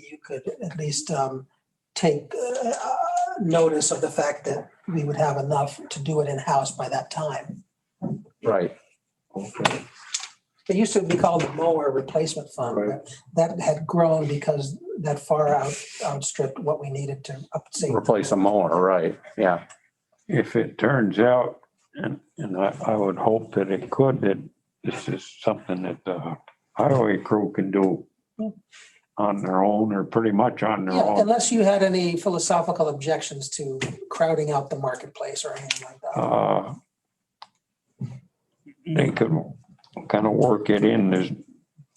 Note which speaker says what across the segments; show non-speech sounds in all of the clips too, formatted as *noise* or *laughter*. Speaker 1: you could at least um, take uh, uh, notice of the fact that we would have enough to do it in-house by that time.
Speaker 2: Right.
Speaker 1: It used to be called the mower replacement fund.
Speaker 2: Right.
Speaker 1: but That had grown because that far out outstripped what we needed to update.
Speaker 2: Replace a mower, right, yeah.
Speaker 3: if it turns out, and, and I, I would hope that it could, that this is something that the highway crew can do on their own or pretty much on their
Speaker 1: Yeah,
Speaker 3: own.
Speaker 1: Unless you had any philosophical objections to crowding out the marketplace or anything like that.
Speaker 3: Uh, They could kind of work it in. There's,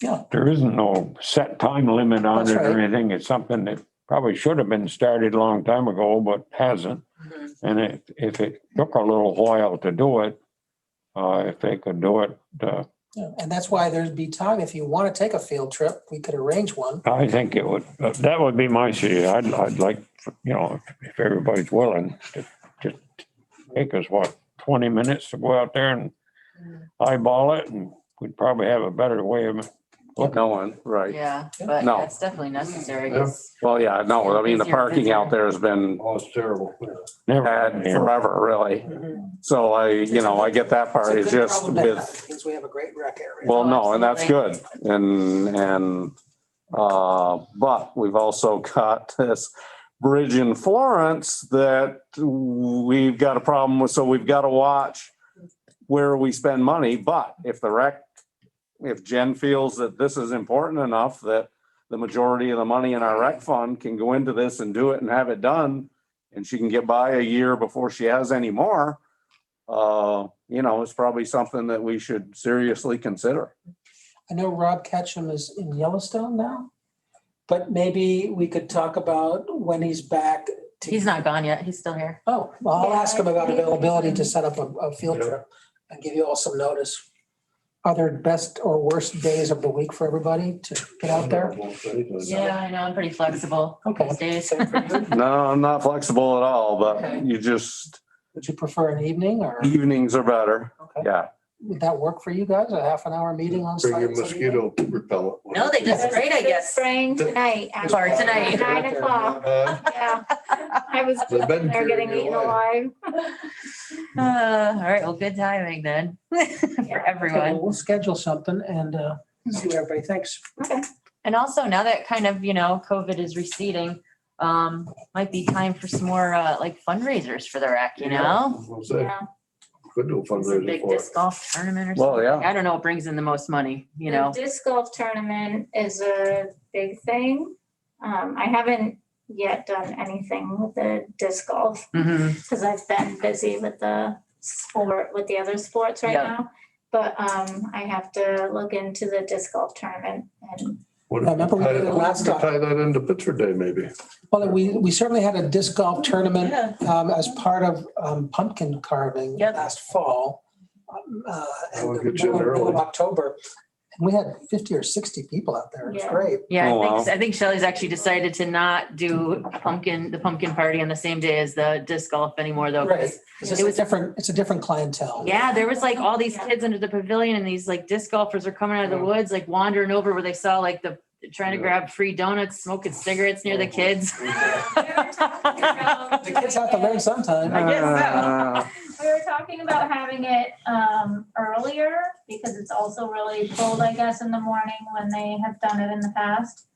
Speaker 1: Yeah.
Speaker 3: there isn't no set time limit on
Speaker 1: That's
Speaker 3: it or
Speaker 1: right.
Speaker 3: anything. It's something that probably should have been started a long time ago, but hasn't.
Speaker 1: Mm-hmm.
Speaker 3: And if, if it took a little while to do it, uh, if they could do it, uh,
Speaker 1: Yeah, And that's why there'd be time, if you want to take a field trip, we could arrange one.
Speaker 3: I think it would, that would be my suggestion. I'd, I'd like, you know, if- if everybody's willing, to just take us, what, twenty minutes to go out there and eyeball it and we'd probably have a better way of,
Speaker 2: Well, No one, right.
Speaker 4: Yeah, but
Speaker 2: No.
Speaker 4: that's definitely necessary.
Speaker 5: Yeah.
Speaker 4: 'cause-
Speaker 2: Well, yeah, no, I mean, the parking out there has been
Speaker 5: Oh, it's terrible.
Speaker 3: never,
Speaker 2: bad forever, really. So I, you know, I get that part. It's
Speaker 1: a Mm-hmm. good
Speaker 2: just
Speaker 1: problem to have,
Speaker 2: with,
Speaker 1: Because we have a great rec area.
Speaker 2: well, no, and that's good. And, and, uh, but we've also *laughs* got this bridge in Florence that we've got a problem with, so we've got to watch where we spend money. But if the rec, if Jen feels that this is important enough that the majority of the money in our rec fund can go into this and do it and have it done, and she can get by a year before she has any more, uh, you know, it's probably something that we should seriously consider.
Speaker 1: I know Rob Ketchum is in Yellowstone now, but maybe we could talk about when he's back. to-
Speaker 4: He's not gone yet. He's still here.
Speaker 1: Oh, well, I'll ask him about
Speaker 6: Yeah, I-
Speaker 1: availability to set up a, a field
Speaker 5: Yeah.
Speaker 1: trip and give you all some notice. Other best or worst days of the week for everybody to get out there.
Speaker 4: Yeah, I know. I'm pretty flexible
Speaker 1: Okay.
Speaker 4: these days. *laughs*
Speaker 1: Same for you.
Speaker 2: No, I'm not flexible at all,
Speaker 4: Okay.
Speaker 2: but you just,
Speaker 1: Would you prefer an evening or
Speaker 2: evenings are better.
Speaker 1: Okay.
Speaker 2: Yeah.
Speaker 1: would that work for you guys? A half an hour meeting on site?
Speaker 5: Bring your mosquito repellent.
Speaker 4: No, they just sprayed, I guess.
Speaker 6: Spraying tonight.
Speaker 4: Bar
Speaker 6: actually,
Speaker 4: tonight.
Speaker 6: Nine o'clock,
Speaker 5: Uh,
Speaker 6: *laughs* yeah. I was
Speaker 5: They've
Speaker 6: just
Speaker 5: been
Speaker 6: there getting
Speaker 5: carrying
Speaker 6: eaten
Speaker 5: you away.
Speaker 6: alive.
Speaker 4: Uh, all right, well, good timing then *laughs* for
Speaker 1: Okay,
Speaker 4: everyone.
Speaker 1: We'll schedule something and uh, see what everybody thinks.
Speaker 4: And also now that kind of, you know, COVID is receding, um, might be time for some more uh like fundraisers for the rec, you know?
Speaker 5: We'll say,
Speaker 6: Yeah.
Speaker 5: Could do a
Speaker 4: Some
Speaker 5: fundraiser
Speaker 4: big
Speaker 5: for it.
Speaker 4: disc golf tournament or
Speaker 2: Well,
Speaker 4: something.
Speaker 2: yeah.
Speaker 4: I don't know what brings in the most money, you
Speaker 6: The
Speaker 4: know?
Speaker 6: Disc golf tournament is a big thing. Um, I haven't yet done anything with the disc golf
Speaker 4: Mhm.
Speaker 6: because I've been busy with the sport, with the other sports right
Speaker 4: Yeah.
Speaker 6: now. But, um, I have to look into the disc golf tournament and
Speaker 1: *laughs*
Speaker 6: *laughs*
Speaker 5: What
Speaker 1: I remember we did it last time.
Speaker 5: Tie that into Pittsburgh Day, maybe.
Speaker 1: Well, we, we certainly had a disc golf tournament
Speaker 4: Yeah.
Speaker 1: um, as part of um, pumpkin carving
Speaker 4: Yep.
Speaker 1: last fall. um, uh,
Speaker 5: That would
Speaker 1: and the
Speaker 5: get you in
Speaker 1: middle
Speaker 5: early.
Speaker 1: of October. And we had 50 or 60 people out there. It was
Speaker 6: Yeah.
Speaker 1: great.
Speaker 4: Yeah,
Speaker 2: Oh,
Speaker 4: I think,
Speaker 2: wow.
Speaker 4: I think Shelley's actually decided to not do pumpkin, the pumpkin party on the same day as the disc golf anymore though. 'cause-
Speaker 1: It's just
Speaker 4: It
Speaker 1: a
Speaker 4: was-
Speaker 1: different, it's a different clientele.
Speaker 4: Yeah, there was like all these
Speaker 6: Yeah.
Speaker 4: kids under the pavilion and these like disc golfers are coming out of the woods, like wandering over where they saw like the, trying to
Speaker 5: Yeah.
Speaker 4: grab free donuts, smoking cigarettes near the kids.
Speaker 6: Yeah.
Speaker 1: The kids have to learn sometime.
Speaker 4: I guess so.
Speaker 2: Uh,
Speaker 6: We were talking about having it um earlier because it's also really cold, I guess, in the morning when they have done it in the past.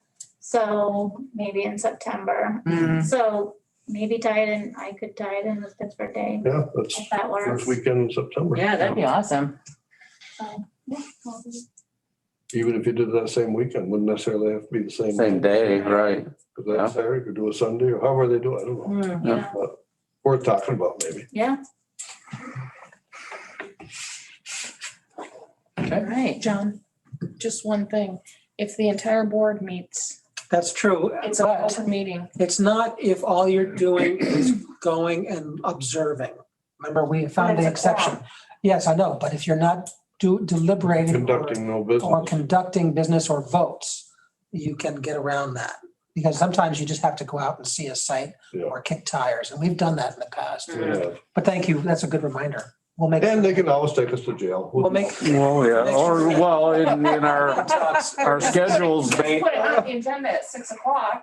Speaker 6: So maybe in September.
Speaker 4: Mm.
Speaker 6: So maybe tie it in, I could tie it in with Pittsburgh Day
Speaker 5: Yeah, that's
Speaker 6: if that works.
Speaker 5: first weekend in September.
Speaker 4: Yeah, that'd be awesome.
Speaker 6: So, yeah, well,
Speaker 5: Even if you did that same weekend, wouldn't necessarily have to be the same.
Speaker 2: Same day, right.
Speaker 5: Because that Saturday, you could do a Sunday or however they do it, I don't know.
Speaker 4: Mm.
Speaker 6: Yeah,
Speaker 5: Worth talking about maybe.
Speaker 6: yeah,
Speaker 4: All right.
Speaker 7: John, just one thing. If the entire board meets,
Speaker 1: That's true.
Speaker 7: it's an
Speaker 1: But
Speaker 7: open meeting.
Speaker 1: it's not if all you're doing is going and observing. Remember, we found the
Speaker 7: But it's a
Speaker 1: exception. Yes, I know, but if you're not do deliberating. or-
Speaker 5: Conducting no
Speaker 1: or
Speaker 5: business.
Speaker 1: conducting business or votes, you can get around that. Because sometimes you just have to go out and see a site
Speaker 5: Yeah.
Speaker 1: or kick tires, and we've done that in the past.
Speaker 5: Yeah.
Speaker 1: But thank you, that's a good reminder. We'll make.
Speaker 5: And they can always take us to jail.
Speaker 1: We'll make.
Speaker 2: Well, yeah, or, well, in, in our, our schedules, they,
Speaker 7: Put it on the agenda at six o'clock.